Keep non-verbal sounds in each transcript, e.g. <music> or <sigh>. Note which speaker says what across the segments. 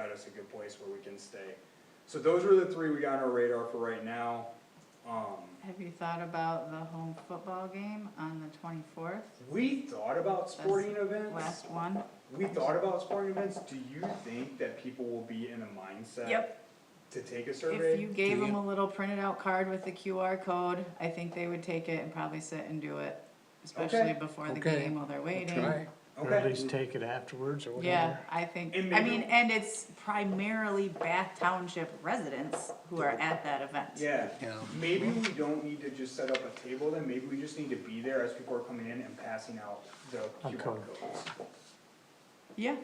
Speaker 1: us a good place where we can stay. So those were the three we got on our radar for right now. Um,
Speaker 2: Have you thought about the home football game on the twenty-fourth,
Speaker 1: we thought about sporting events.
Speaker 2: last one?
Speaker 1: We thought about sporting events. Do you think that people will be in a mindset
Speaker 2: Yep.
Speaker 1: to take a survey?
Speaker 2: If you gave them a little printed out card with the QR code, I think they would take it and probably sit and do it, especially
Speaker 1: Okay.
Speaker 2: before the
Speaker 3: Okay.
Speaker 2: game while they're waiting.
Speaker 3: Right.
Speaker 4: Or at
Speaker 1: Okay.
Speaker 4: least take it afterwards or
Speaker 2: Yeah,
Speaker 4: whatever.
Speaker 2: I think,
Speaker 1: And
Speaker 2: I
Speaker 1: maybe-
Speaker 2: mean, and it's primarily Bath Township residents who are at that event.
Speaker 1: Yeah.
Speaker 3: Yeah.
Speaker 1: Maybe we don't need to just set up a table then, maybe we just need to be there as people are coming in and passing out the QR
Speaker 4: Okay.
Speaker 1: codes.
Speaker 2: Yeah,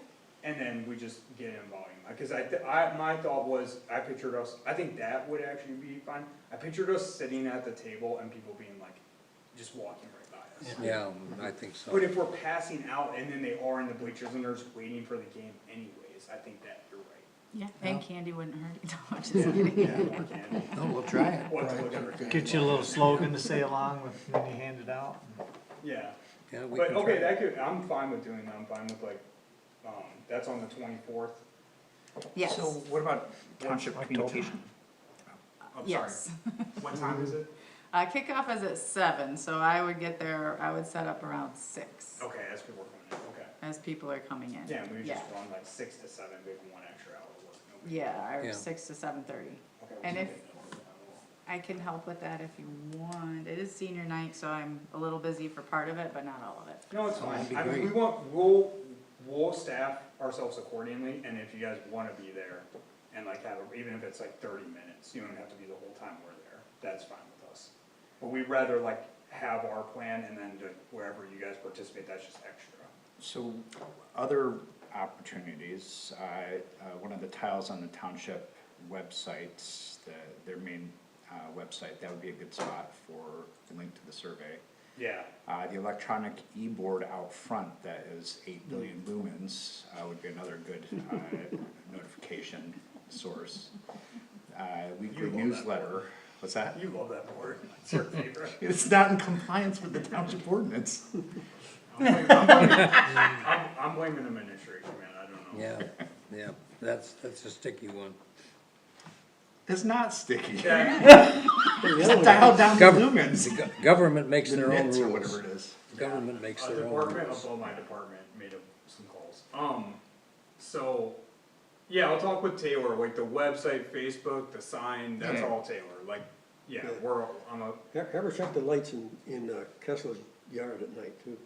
Speaker 1: And then we just get in volume, because I, th- I, my thought was, I pictured us, I think that would actually be fine. I pictured us sitting at the table and people being like, just walking right by us.
Speaker 3: Yeah, I think so.
Speaker 1: But if we're passing out and then they are in the bleachers and they're just waiting for the game anyways, I think that you're right.
Speaker 2: yeah, and candy wouldn't hurt it. <laughs> No, I'm
Speaker 1: <laughs>
Speaker 2: just kidding.
Speaker 1: Yeah, we can.
Speaker 3: No, we'll try it.
Speaker 1: What's whatever.
Speaker 4: Get you a little slogan to say along with when you hand it out.
Speaker 1: Yeah.
Speaker 3: Yeah, we
Speaker 1: But,
Speaker 3: can try
Speaker 1: okay,
Speaker 3: it.
Speaker 1: that could, I'm fine with doing that, I'm fine with like, um, that's on the twenty-fourth.
Speaker 2: Yes,
Speaker 5: So what about township
Speaker 4: October.
Speaker 5: communication?
Speaker 1: I'm sorry,
Speaker 2: yes.
Speaker 1: what time is it?
Speaker 2: Uh, kickoff is at seven, so I would get there, I would set up around six
Speaker 1: Okay, that's what we're going to, okay.
Speaker 2: as people are coming in.
Speaker 1: Yeah, we just run like six to seven, maybe one extra hour of work. no big deal.
Speaker 2: Yeah, or
Speaker 3: Yeah.
Speaker 2: six to seven thirty.
Speaker 1: Okay,
Speaker 2: and
Speaker 1: we
Speaker 2: if-
Speaker 1: can do that.
Speaker 2: I can help with that if you want. It is senior night, so I'm a little busy for part of it, but not all of it.
Speaker 1: No, it's
Speaker 3: Oh, that'd
Speaker 1: fine,
Speaker 3: be
Speaker 1: I mean,
Speaker 3: great.
Speaker 1: we want, we'll, we'll staff ourselves accordingly, and if you guys wanna be there, and like have, a- even if it's like thirty minutes, you don't have to be the whole time we're there, that's fine with us. But we'd rather like have our plan and then to wherever you guys participate, that's just extra.
Speaker 5: So other opportunities, I, uh, one of the tiles on the township websites, the, their main, uh, website, that would be a good spot for the link to the survey.
Speaker 1: Yeah,
Speaker 5: Uh, the electronic e-board out front that is eight billion lumens, uh, would be another good, uh,
Speaker 1: <laughs>
Speaker 5: notification source. Uh, weekly
Speaker 1: love that.
Speaker 5: newsletter, what's that?
Speaker 1: you love that board, it's your <laughs> favorite.
Speaker 5: It's not in compliance with the township ordinance.
Speaker 1: I'm blaming- I'm blaming- I'm I'm blaming the administration, man, I don't know.
Speaker 3: Yeah, yeah, that's, that's a sticky one.
Speaker 5: It's not sticky.
Speaker 1: Yeah,
Speaker 5: It's dialed down to
Speaker 3: Government-
Speaker 5: lumens.
Speaker 3: Go- Government makes their own
Speaker 5: Nits or
Speaker 3: rules.
Speaker 5: whatever it is. Uh,
Speaker 3: Government makes
Speaker 1: A
Speaker 3: their own
Speaker 1: department
Speaker 3: rules.
Speaker 1: above my department made up some calls. Um, so, yeah, I'll talk with Taylor, like the website, Facebook, the sign, that's all Taylor, like, yeah,
Speaker 6: Yeah.
Speaker 1: we're, I'm a,
Speaker 6: Have have her E-, shut the lights in, in uh, Kessler's yard at night
Speaker 5: <laughs>
Speaker 6: too.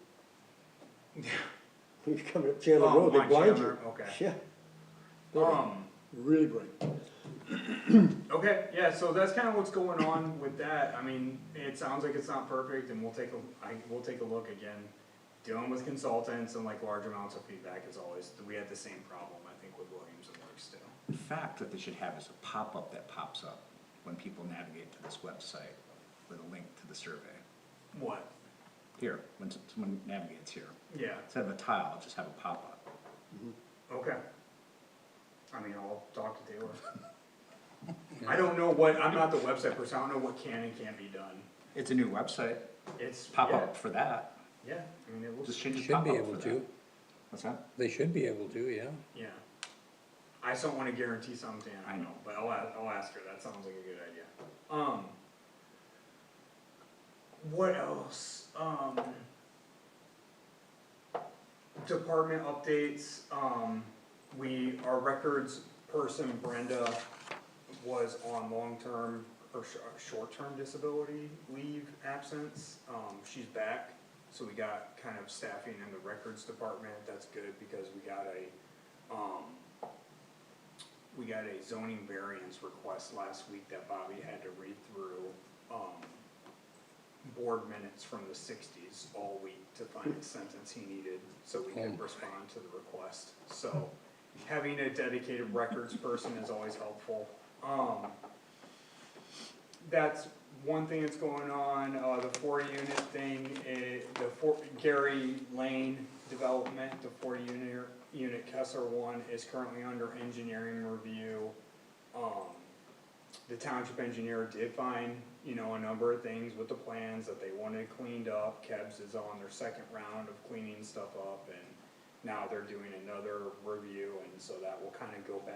Speaker 6: When you come up Chandler
Speaker 1: Oh,
Speaker 6: Road, they
Speaker 1: my
Speaker 6: blind you.
Speaker 1: Chandler, okay.
Speaker 6: Yeah,
Speaker 1: um,
Speaker 6: really bright.
Speaker 1: okay, yeah, so that's kinda what's going on with that, I mean, it sounds like it's not perfect, and we'll take a, I, we'll take a look again. Dealing with consultants and like large amounts of feedback is always, we had the same problem, I think, with Williams and Works too.
Speaker 5: In fact, what they should have is a pop-up that pops up when people navigate to this website with a link to the survey.
Speaker 1: What?
Speaker 5: Here, when s- someone navigates here,
Speaker 1: Yeah,
Speaker 5: instead of a tile, just have a pop-up.
Speaker 1: Okay. I mean, I'll talk to Taylor. I don't know what, I'm not the website person, I don't know what can and can't be done.
Speaker 5: It's a new website,
Speaker 1: It's.
Speaker 5: pop-up for that,
Speaker 1: Yeah, yeah, I mean, it
Speaker 5: just
Speaker 1: was,
Speaker 5: change the
Speaker 3: Should be
Speaker 5: pop-up Uh, for
Speaker 3: able
Speaker 5: that.
Speaker 3: to,
Speaker 5: What's that?
Speaker 3: they should be able to, yeah.
Speaker 1: yeah. I just don't wanna guarantee something, I
Speaker 5: I
Speaker 1: know,
Speaker 5: know.
Speaker 1: but I'll, a- I'll ask her, that sounds like a good idea. Um. What else? Um. Department updates, um, we, our records person Brenda was on long-term or sh- uh, short-term disability leave absence. Um, she's back, so we got kind of staffing in the records department, that's good because we got a, um, we got a zoning variance request last week that Bobby had to read through, um, board minutes from the sixties all week to find the sentence he needed, so we could respond to the request. So, having a dedicated records person is always helpful. Um, that's one thing that's going on, uh, the four unit thing, eh, the four, Gary Lane development, the four unit, unit Kessler one is currently under engineering review. Um, the township engineer did find, you know, a number of things with the plans that they wanted cleaned up. Kebs is on their second round of cleaning stuff up and now they're doing another review and so that will kind of go back